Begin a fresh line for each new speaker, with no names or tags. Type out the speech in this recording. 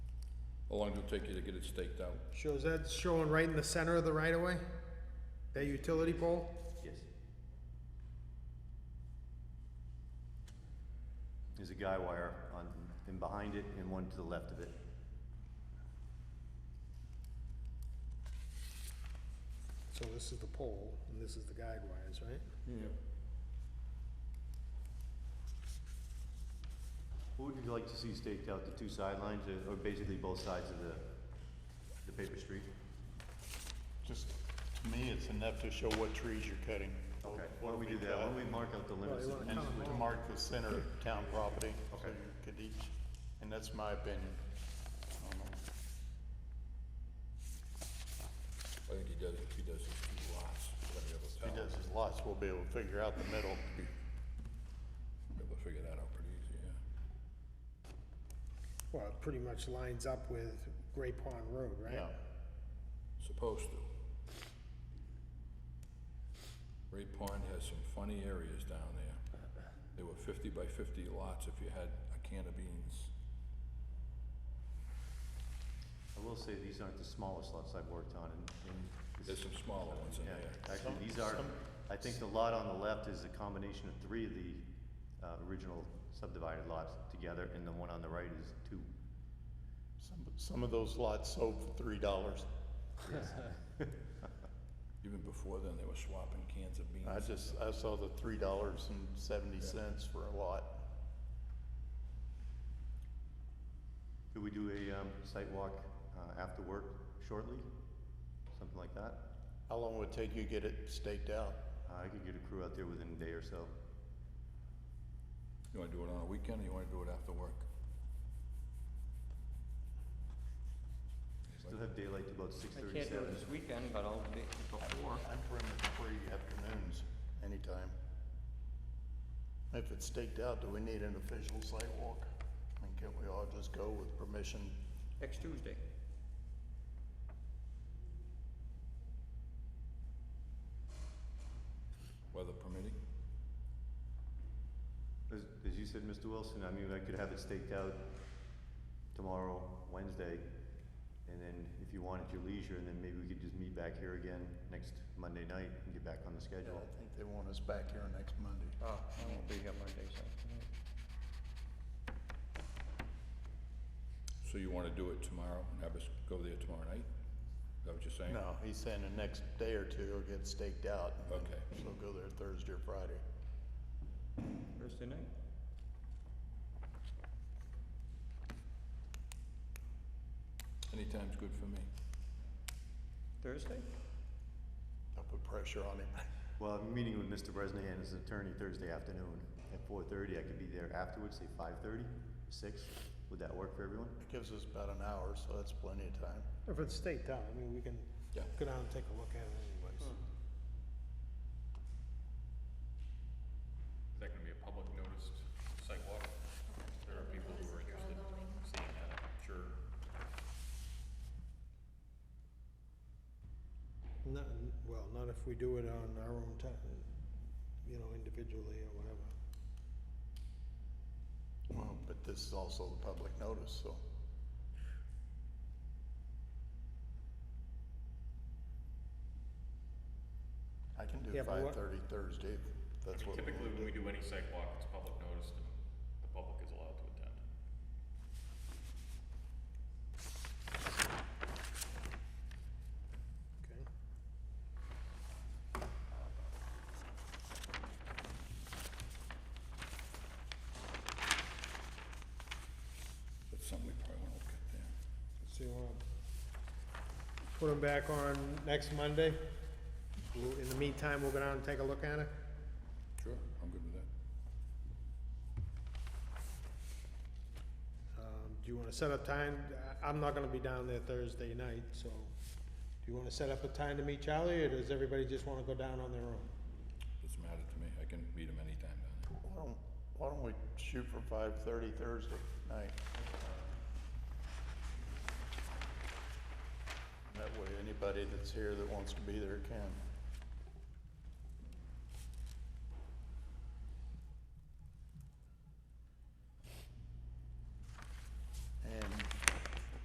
How long did it take you to get it staked out?
So is that showing right in the center of the right of way? That utility pole?
Yes. There's a guy wire on, and behind it and one to the left of it.
So this is the pole, and this is the guide wires, right?
Yeah.
What would you like to see staked out, the two sidelines uh, or- or basically both sides of the, the paper street?
Just, to me, it's enough to show what trees you're cutting.
Okay, why don't we do that, why don't we mark out the limits?
Well, you
And just to mark the center of town property, so
Okay.
you could each, and that's my opinion. Um, I don't know.
I think he does, he does his two lots, whatever the
If he
town.
does his lots, we'll be able to figure out the middle.
Be able to figure that out pretty easy, yeah.
Well, it pretty much lines up with Gray Pond Road, right?
Yeah,
Supposed to. Ray Pond has some funny areas down there. There were fifty by fifty lots if you had a can of beans.
I will say, these aren't the smallest lots I've worked on and, and. this-
There's some smaller ones in
Yeah,
there.
actually,
Some-
these are,
some-
I think the lot on the left is a combination of three of the, uh, original subdivided lots together, and the one on the right is two.
some, some of those lots sold for three dollars.
Even before then, they were swapping cans of beans.
I just, I saw the three dollars and seventy cents for a lot.
Could we do a, um, site walk, uh, after work shortly? Something like that?
How long would it take you to get it staked out?
Uh, I could get a crew out there within a day or so.
You wanna do it on a weekend or you wanna do it after work?
Still have daylight to about six
I can't do it
thirty-seven.
this weekend, but I'll be before.
I'm pretty much free afternoons, anytime. If it's staked out, do we need an official sidewalk? I mean, can't we all just go with permission?
Next Tuesday.
Weather permitting?
As, as you said, Mr. Wilson, I mean, I could have it staked out tomorrow, Wednesday, and then if you want at your leisure, and then maybe we could just meet back here again next Monday night and get back on the
Yeah,
schedule.
I think they want us back here next Monday.
Oh, I won't be here Monday, so.
So you wanna do it tomorrow and have us go there tomorrow night? Is that what you're saying?
No, he's saying the next day or two it'll get staked out. and then
Okay.
She'll go there Thursday or Friday.
Thursday night?
Anytime's good for me.
Thursday?
I'll put pressure on him.
Well, I'm meeting with Mr. Bresnahan, his attorney, Thursday afternoon at four thirty. I could be there afterwards, say five thirty, six. Would that work for everyone?
It gives us about an hour, so that's plenty of time.
If it's staked out, I mean, we can
Yeah.
go down and take a look at it anyways.
Is that gonna be a public noticed site walk? There are people who are interested in seeing that, I'm sure.
Not, well, not if we do it on our own time, you know, individually or whatever.
Well, But this is also the public notice, so. I can do
Yeah, but
five
what-
thirty Thursday, if that's what we
Typically,
want
when
to
we
do.
do any site walk, it's public noticed and the public is allowed to attend.
Okay.
That's something we probably wanna look at there.
So you wanna put them back on next Monday? We'll- In the meantime, we'll go down and take a look at it?
Sure, I'm good with that.
Um, do you wanna set up time? I- I'm not gonna be down there Thursday night, so do you wanna set up a time to meet Charlie, or does everybody just wanna go down on their own?
Doesn't matter to me. I can meet him anytime down there.
Why don't, why don't we shoot for five thirty Thursday night? That way, anybody that's here that wants to be there can.